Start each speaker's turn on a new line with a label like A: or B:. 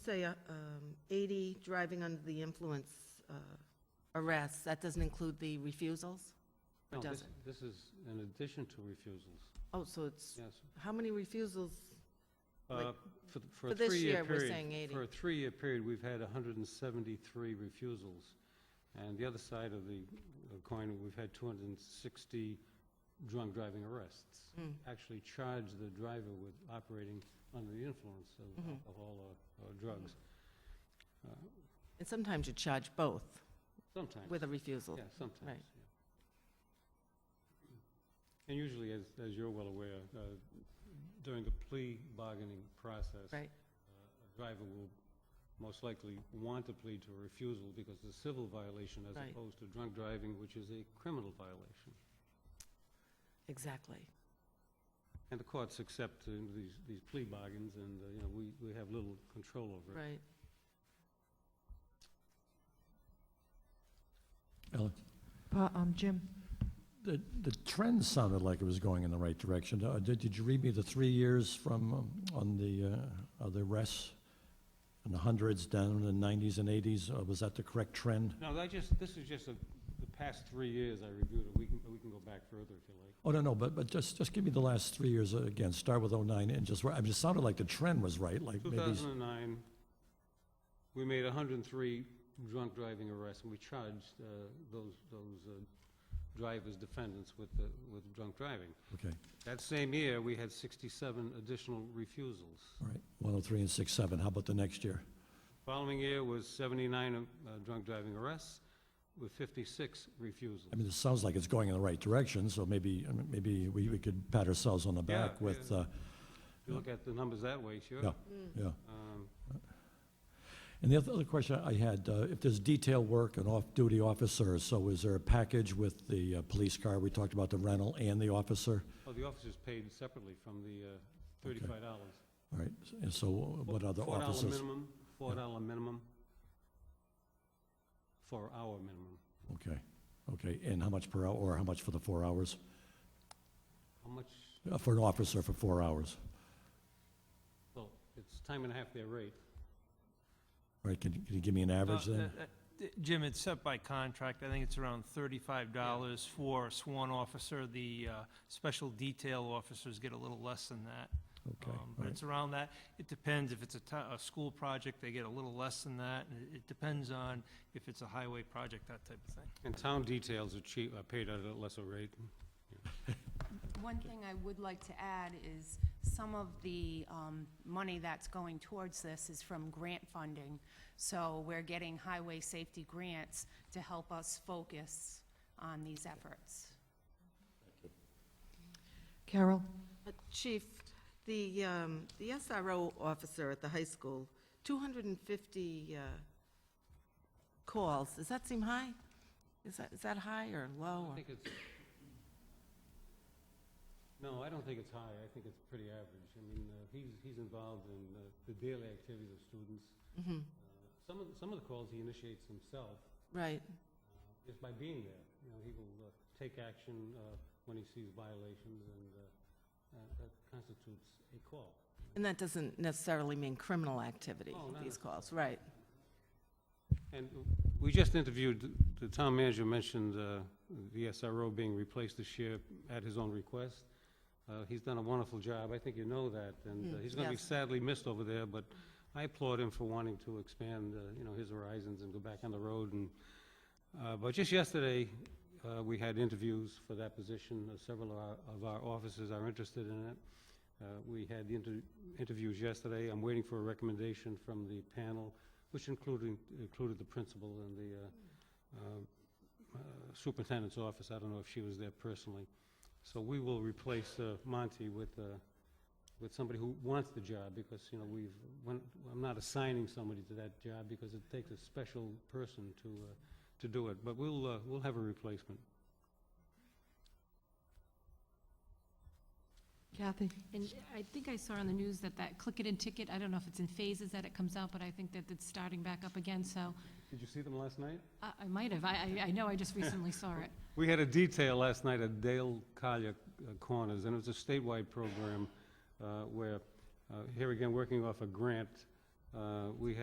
A: say uh, um, 80 driving under the influence uh, arrests, that doesn't include the refusals? Or
B: No, this,
A: doesn't?
B: this is in addition to refusals,
A: Oh, so it's,
B: yes.
A: how many refusals? Like,
B: Uh, For, th- for
A: for
B: a
A: this year,
B: three-year period.
A: we're saying 80.
B: For a three-year period, we've had 173 refusals. And the other side of the uh, coin, we've had 260 drunk driving arrests.
A: Mm,
B: Actually charged the driver with operating under the influence of
A: Mhm.
B: alcohol or- or drugs. Uh,
A: And sometimes you charge both
B: Sometimes.
A: with a refusal.
B: Yeah, sometimes,
A: Right.
B: yeah. And usually, as, as you're well aware, uh, during the plea bargaining process.
A: Right.
B: uh, A driver will most likely want to plead to a refusal because it's a civil violation as
A: Right.
B: opposed to drunk driving, which is a criminal violation.
A: Exactly.
B: And the courts accept uh, these, these plea bargains and, uh, you know, we, we have little control over it.
A: Right.
C: Ellen,
D: Pa- um, Jim,
C: the, the trend sounded like it was going in the right direction. Uh, Did, did you read me the three years from, um, on the, uh, of the rests? In the hundreds, down in the nineties and eighties, uh, was that the correct trend?
B: No, I just, this is just the the past three years I reviewed it. We can, we can go back further if you like.
C: Oh, no, no, but, but just, just give me the last three years uh, again, start with oh-nine and just, where- I mean, it sounded like the trend was right, like maybe. s-
B: 2009, we made 103 drunk driving arrests, and we charged uh, those, those uh, drivers, defendants with, the- with drunk driving.
C: Okay,
B: That same year, we had 67 additional refusals.
C: all right, one oh three and six seven, how about the next year?
B: Following year was 79 uh, drunk driving arrests with 56 refusals.
C: I mean, it sounds like it's going in the right direction, so maybe, I mean, maybe we, we could pat ourselves on the
B: Yeah,
C: back with,
B: yeah.
C: uh,
B: If you look at the numbers that way, sure.
C: Yeah.
A: Hmm.
C: yeah.
B: Um,
C: And the other other question I had, uh, if there's detail work and off-duty officers, so is there a package with the uh, police car? We talked about the rental and the officer.
B: Well, the officers paid separately from the uh, $35.
C: All right, and so uh, what other
B: $4
C: officers?
B: minimum, $4 minimum, four-hour minimum.
C: Okay, okay, and how much per hour, or how much for the four hours?
B: How much,
C: Uh, For an officer for four hours,
B: well, it's time and a half their rate.
C: right? Can you- can you give me an average
E: Uh,
C: then?
E: uh, uh, Jim, it's set by contract. I think it's around thirty-five dollars for a sworn officer. The uh, special detail officers get a little less than that.
C: Okay,
E: Um,
C: all
E: But
C: right.
E: it's around that. It depends. If it's a to- a school project, they get a little less than that. and It it depends on if it's a highway project, that type of thing.
B: And town details are cheap, are paid at a lesser rate.
F: One thing I would like to add is some of the um, money that's going towards this is from grant funding. So we're getting highway safety grants to help us focus on these efforts.
D: Carol,
A: Uh, Chief, the, um, the SRO officer at the high school, 250 uh, calls, does that seem high? Is that, is that high or low?
B: I
A: or-
B: think it's, no, I don't think it's high, I think it's pretty average. I mean, uh, he's, he's involved in uh, the daily activities of students.
A: Mhm,
B: Uh, Some of, the- some of the calls he initiates himself,
A: Right,
B: uh, just by being there. You know, he will uh, take action uh, when he sees violations, and uh, uh, that constitutes a call.
A: and that doesn't necessarily mean criminal activity,
B: Oh, no,
A: these
B: no.
A: calls, right?
B: And we just interviewed, the town manager mentioned uh, the SRO being replaced this year at his own request. Uh, He's done a wonderful job, I think you know that, and uh,
A: Mm,
B: he's going to be
A: yes.
B: sadly missed over there, but I applaud him for wanting to expand, uh, you know, his horizons and go back on the road and, uh, but just yesterday, uh, we had interviews for that position, Uh, several of our- of our officers are interested in it. Uh, We had the inter- interviews yesterday, I'm waiting for a recommendation from the panel, which included, included the principal and the uh, uh, uh, superintendent's office, I don't know if she was there personally. So we will replace uh, Monty with, uh, with somebody who wants the job, because, you know, we've, when- I'm not assigning somebody to that job, because it takes a special person to, uh, to do it, but we'll, uh, we'll have a replacement.
D: Kathy,
G: And I think I saw on the news that that Click It and Ticket, I don't know if it's in phases that it comes out, but I think that it's starting back up again, so uh,
B: Did you see them last night?
G: I I might have, I, I- I know I just recently saw it.
B: We had a detail last night at Dale Collier uh, Corners, and it was a statewide program uh, where, uh, here again, working off a grant, uh, we had